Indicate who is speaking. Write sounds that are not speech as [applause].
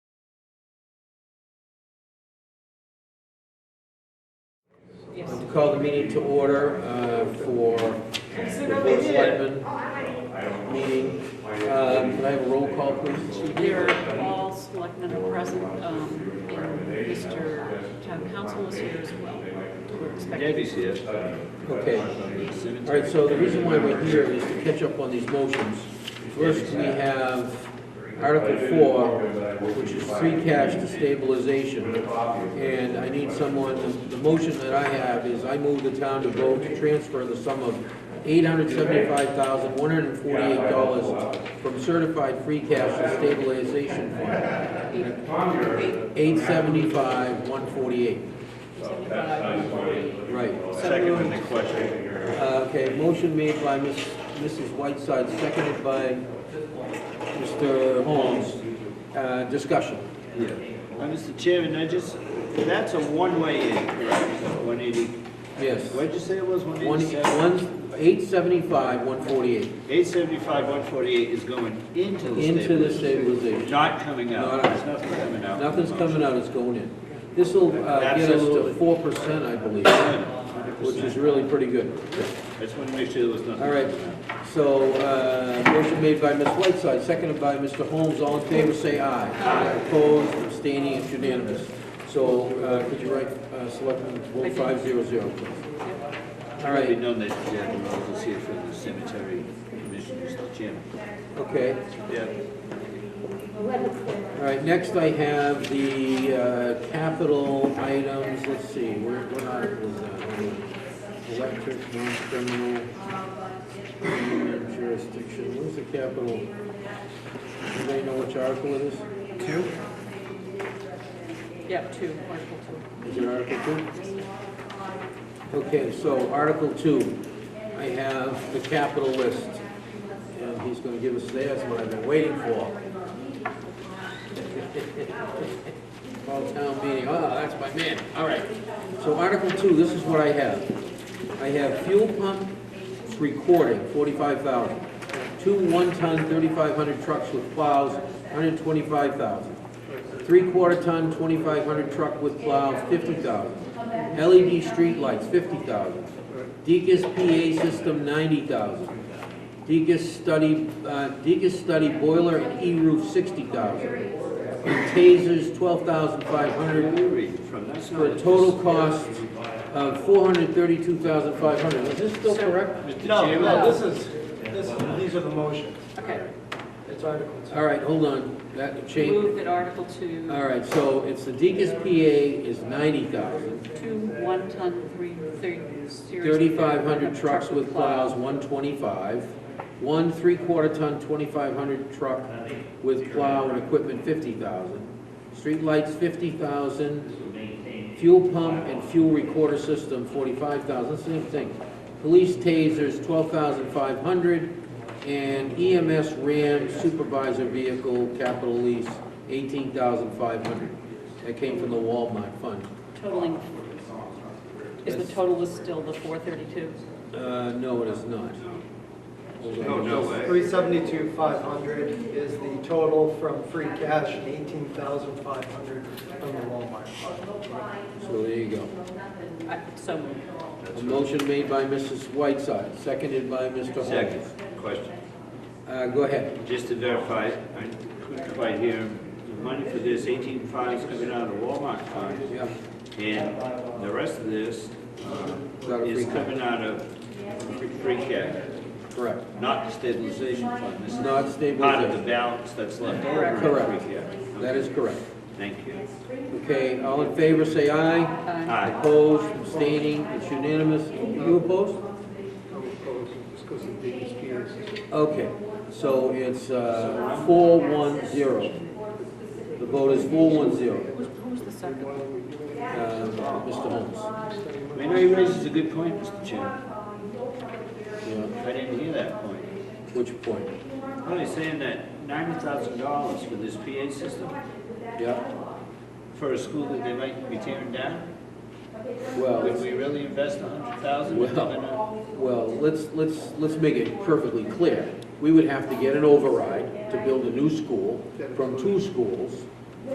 Speaker 1: Call the meeting to order uh, for the Board of Selectmen meeting. Um, Can I have a roll call, please?
Speaker 2: There are all selectmen are present, um, and Mr. Town Council is here as well. We're expecting-
Speaker 3: Debbie's here.
Speaker 1: Okay. All right, so the reason why we're here is to catch up on these motions. First, we have Article 4, which is free cash to stabilization. And I need someone, the motion that I have is I move the town to vote to transfer the sum of $875,148 from certified free cash to stabilization fund,
Speaker 2: Eight-
Speaker 1: 875,148. Right.
Speaker 3: Second in the question.
Speaker 1: Uh, Okay, motion made by Miss- Mrs. Whiteside, seconded by Mr. Holmes. Uh, Discussion.
Speaker 3: Uh, Mr. Chairman, I just, that's a one-way in, correct? One eighty,
Speaker 1: Yes.
Speaker 3: what'd you say it was, one
Speaker 1: One,
Speaker 3: eighty-seven?
Speaker 1: one, eight seventy-five, one forty-eight,
Speaker 3: Eight seventy-five, one forty-eight is going into the
Speaker 1: into the
Speaker 3: stabilization.
Speaker 1: stabilization.
Speaker 3: Not coming out,
Speaker 1: Not out.
Speaker 3: there's nothing coming out.
Speaker 1: Nothing's coming out, it's going in. This'll uh, get us to
Speaker 3: Absolutely.
Speaker 1: four percent, I believe, which is really pretty good.
Speaker 3: I just wanted to make sure there was nothing.
Speaker 1: All right,
Speaker 3: coming out.
Speaker 1: so, uh, motion made by Ms. Whiteside, seconded by Mr. Holmes, all in favor, say aye. Aye. Opposed, abstaining, it's unanimous. So, uh, could you write, uh, Selectman
Speaker 2: I
Speaker 1: one
Speaker 2: did.
Speaker 1: five zero zero, please? All
Speaker 3: It'd be
Speaker 1: right,
Speaker 3: known that Jack Rose is here for the cemetery commission, Mr. Chairman.
Speaker 1: okay.
Speaker 3: Yeah.
Speaker 1: All right, next I have the uh, capital items, let's see, where, what article is that? uh, Electric, non-criminal, criminal jurisdiction, where's the capital? Anybody know which article it is?
Speaker 2: Yeah, two, Article two.
Speaker 1: Is it Article two? Okay, so Article two, I have the capital list, and he's gonna give us, that's what I've been waiting for. [laughs] Fall town meeting, oh, that's my man, all right. So Article two, this is what I have. I have fuel pump recording, forty-five thousand. Two one-ton, thirty-five hundred trucks with plows, hundred twenty-five thousand. Three-quarter ton, twenty-five hundred truck with plows, fifty thousand. LED streetlights, fifty thousand. Deacon's PA system, ninety thousand. Deacon's study, uh, Deacon's study boiler and E-roof, sixty thousand. And tasers, twelve thousand five hundred,
Speaker 3: Where are we from? That's
Speaker 1: for a
Speaker 3: not-
Speaker 1: total cost of four hundred thirty-two thousand five hundred. Is this still correct?
Speaker 3: Mr.
Speaker 4: No,
Speaker 3: Chairman?
Speaker 4: no, this is, this, these are the motions.
Speaker 2: Okay,
Speaker 4: It's articles.
Speaker 1: All right, hold on, that changed.
Speaker 2: move that Article two,
Speaker 1: All right, so it's the Deacon's PA is ninety thousand,
Speaker 2: two one-ton, three, thirty, series.
Speaker 1: thirty-five hundred trucks with plows, one twenty-five, one three-quarter ton, twenty-five hundred truck with plow and equipment, fifty thousand. Streetlights, fifty thousand, fuel pump and fuel recorder system, forty-five thousand, same thing. Police tasers, twelve thousand five hundred, and EMS RAM supervisor vehicle capital lease, eighteen thousand five hundred. That came from the Walmart fund.
Speaker 2: Totaling, is the total is still the four thirty-two?
Speaker 1: Uh, no, it is not. Hold on.
Speaker 3: Oh, No, no way.
Speaker 4: Three seventy-two, five hundred is the total from free cash and eighteen thousand five hundred from the Walmart.
Speaker 1: So there you go.
Speaker 2: So moved.
Speaker 1: A motion made by Mrs. Whiteside, seconded by Mr. Holmes.
Speaker 3: Second question.
Speaker 1: Uh, go ahead.
Speaker 3: Just to verify, I couldn't quite hear, the money for this eighteen five is coming out of the Walmart fund,
Speaker 1: Yeah,
Speaker 3: and the rest of this uh,
Speaker 1: Out of free
Speaker 3: is
Speaker 1: cash.
Speaker 3: coming out of free- free cash,
Speaker 1: correct.
Speaker 3: not the stabilization fund. This is
Speaker 1: Not
Speaker 3: part of the
Speaker 1: stabilization.
Speaker 3: balance that's left over in
Speaker 1: Correct.
Speaker 3: free cash.
Speaker 1: That is correct.
Speaker 3: Thank you.
Speaker 1: Okay, all in favor, say aye.
Speaker 2: Aye.
Speaker 3: Aye.
Speaker 1: Opposed, abstaining, it's unanimous. You opposed? Okay, so it's, uh, four one zero. The vote is four one zero,
Speaker 2: Who's, who's the second?
Speaker 1: uh, Mr. Holmes.
Speaker 3: I know you raises a good point, Mr. Chairman.
Speaker 1: Yeah,
Speaker 3: I didn't hear that point.
Speaker 1: which point?
Speaker 3: Well, he's saying that ninety thousand dollars for this PA system
Speaker 1: Yeah,
Speaker 3: for a school that they might be tearing down?
Speaker 1: well,
Speaker 3: Would we really invest a hundred thousand?
Speaker 1: Well, well, let's, let's, let's make it perfectly clear. We would have to get an override to build a new school from two schools,